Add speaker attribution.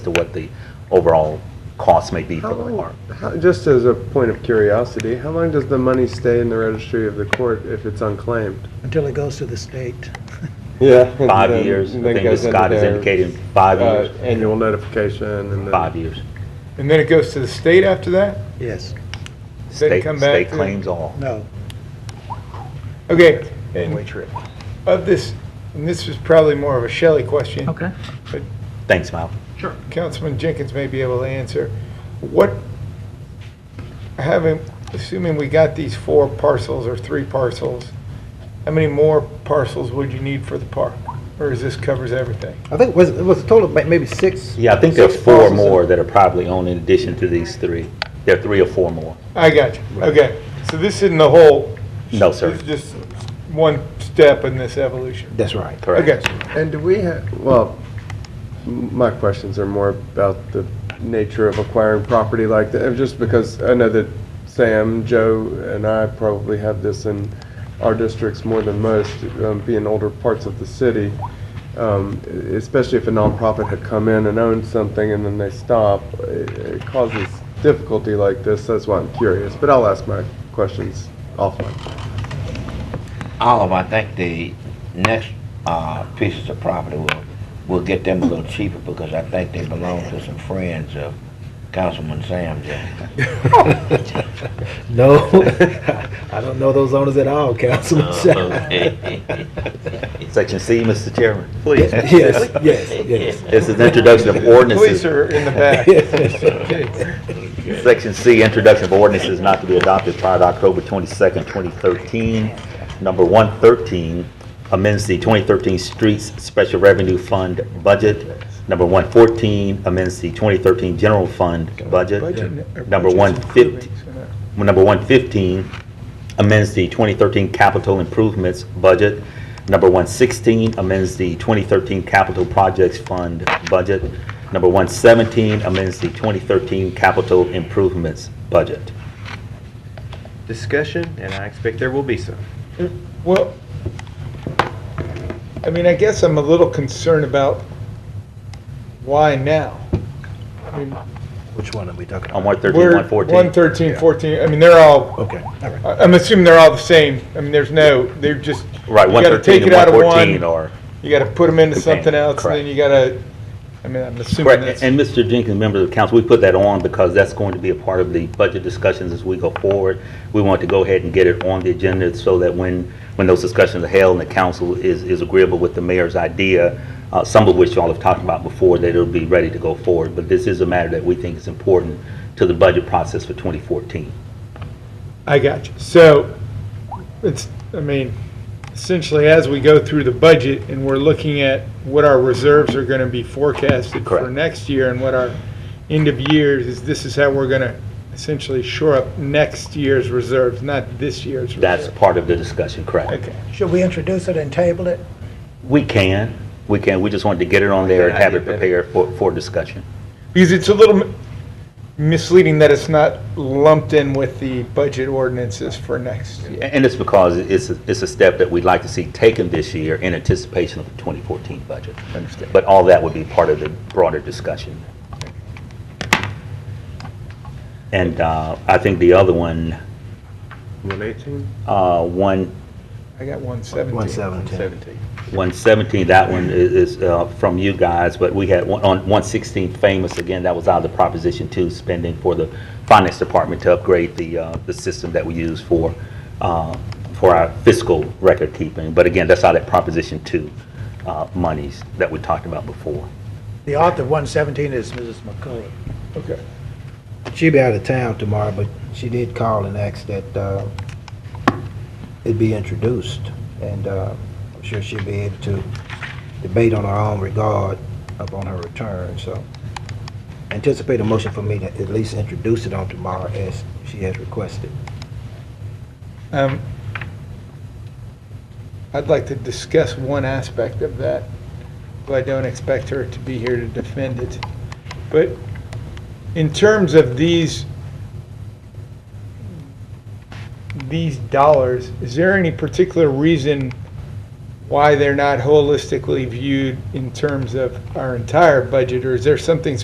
Speaker 1: to what the overall cost may be
Speaker 2: How
Speaker 1: for the
Speaker 2: long,
Speaker 1: warrant.
Speaker 2: how, just as a point of curiosity, how long does the money stay in the registry of the court if it's unclaimed?
Speaker 3: until it goes to the state.
Speaker 2: Yeah.
Speaker 1: Five years, I think as Scott has indicated, five years,
Speaker 2: uh, Annual notification and then.
Speaker 1: five years.
Speaker 4: And then it goes to the state after that?
Speaker 3: Yes,
Speaker 4: Does it
Speaker 1: State,
Speaker 4: come back
Speaker 1: state
Speaker 4: to-
Speaker 1: claims all.
Speaker 3: no,
Speaker 4: Okay, and of this, and this is probably more of a Shelley question.
Speaker 5: Okay.
Speaker 1: Thanks, Mal.
Speaker 4: Councilman Jenkins may be able to answer. What, having, assuming we got these four parcels or three parcels, how many more parcels would you need for the park? Or is this covers everything?
Speaker 3: I think it was, it was a total of ma- maybe six.
Speaker 1: Yeah, I think there's
Speaker 4: Six
Speaker 1: four
Speaker 4: parcels in-
Speaker 1: more that are probably owned in addition to these three. There are three or four more.
Speaker 4: I got you. Okay, so this isn't the whole.
Speaker 1: No, sir.
Speaker 4: This is just one step in this evolution.
Speaker 5: That's right.
Speaker 4: Okay,
Speaker 1: Correct.
Speaker 2: And do we have, well, m- my questions are more about the nature of acquiring property like that, just because I know that Sam, Joe, and I probably have this in our districts more than most, um, being older parts of the city. Um, e- especially if a nonprofit had come in and owned something and then they stop, it, it causes difficulty like this. That's why I'm curious, but I'll ask my questions offline.
Speaker 6: Oliver, I think the next uh, pieces of property will, will get them a little cheaper because I think they belong to some friends of Councilman Sam Jenkins.
Speaker 5: No, I don't know those owners at all, Councilman.
Speaker 1: Uh-huh. Section C, Mr. Chairman, please.
Speaker 5: Yes, yes, yes.
Speaker 1: This is introduction of
Speaker 4: police
Speaker 1: ordinances.
Speaker 4: are in the back.
Speaker 1: Section C, introduction of ordinances not to be adopted prior to October 22nd, 2013. Number 113 amends the 2013 Streets Special Revenue Fund budget. Number 114 amends the 2013 General Fund budget. Number 115, number 115 amends the 2013 capital improvements budget. Number 116 amends the 2013 capital projects fund budget. Number 117 amends the 2013 capital improvements budget.
Speaker 7: discussion, and I expect there will be some.
Speaker 4: Well, I mean, I guess I'm a little concerned about why now? I mean,
Speaker 5: Which one are we talking
Speaker 1: On
Speaker 5: about?
Speaker 1: 113,
Speaker 4: we're-
Speaker 1: 114.
Speaker 4: 113, 14, I mean, they're all,
Speaker 5: Okay, all right.
Speaker 4: I- I'm assuming they're all the same. I mean, there's no, they're just,
Speaker 1: Right,
Speaker 4: You gotta
Speaker 1: 113
Speaker 4: take
Speaker 1: and
Speaker 4: it out of
Speaker 1: 114
Speaker 4: one.
Speaker 1: or
Speaker 4: you gotta put them into something
Speaker 1: Companion,
Speaker 4: else, and
Speaker 1: correct.
Speaker 4: then you gotta, I mean, I'm assuming
Speaker 1: Correct,
Speaker 4: that's.
Speaker 1: and Mr. Jenkins, members of the council, we put that on because that's going to be a part of the budget discussions as we go forward. We want to go ahead and get it on the agenda so that when, when those discussions are held and the council is, is agreeable with the mayor's idea, uh, some of which y'all have talked about before, that it'll be ready to go forward. But this is a matter that we think is important to the budget process for 2014.
Speaker 4: I got you. So, it's, I mean, essentially, as we go through the budget and we're looking at what our reserves are gonna be forecasted for
Speaker 1: Correct.
Speaker 4: next year and what our end of years is, this is how we're gonna essentially shore up next year's reserves, not this year's
Speaker 1: That's
Speaker 4: reserve.
Speaker 1: part of the discussion, correct?
Speaker 4: Okay.
Speaker 3: Should we introduce it and table it?
Speaker 1: We can, we can, we just wanted to get it on there and have it prepared for, for discussion.
Speaker 4: Because it's a little m- misleading that it's not lumped in with the budget ordinances for next.
Speaker 1: And it's because it's, a- it's a step that we'd like to see taken this year in anticipation of the 2014 budget.
Speaker 4: Understand.
Speaker 1: But all that would be part of the broader discussion. And uh, I think the other one,
Speaker 2: One eighteen?
Speaker 1: uh, one,
Speaker 4: I got one seventeen.
Speaker 5: 117.
Speaker 1: 117, that one i- is uh, from you guys, but we had one on 116 Famous, again, that was out of the Proposition 2 spending for the Finance Department to upgrade the, uh, the system that we use for, uh, for our fiscal record keeping. But again, that's out of Proposition 2 uh, monies that we talked about before.
Speaker 3: The author of 117 is Mrs. McCullough.
Speaker 4: Okay.
Speaker 5: She'll be out of town tomorrow, but she did call and ask that uh, it be introduced. And uh, I'm sure she'll be able to debate on her own regard upon her return, so. Anticipate a motion for me to at least introduce it on tomorrow as she has requested.
Speaker 4: Um, I'd like to discuss one aspect of that, but I don't expect her to be here to defend it. But in terms of these, these dollars, is there any particular reason why they're not holistically viewed in terms of our entire budget? Or is there something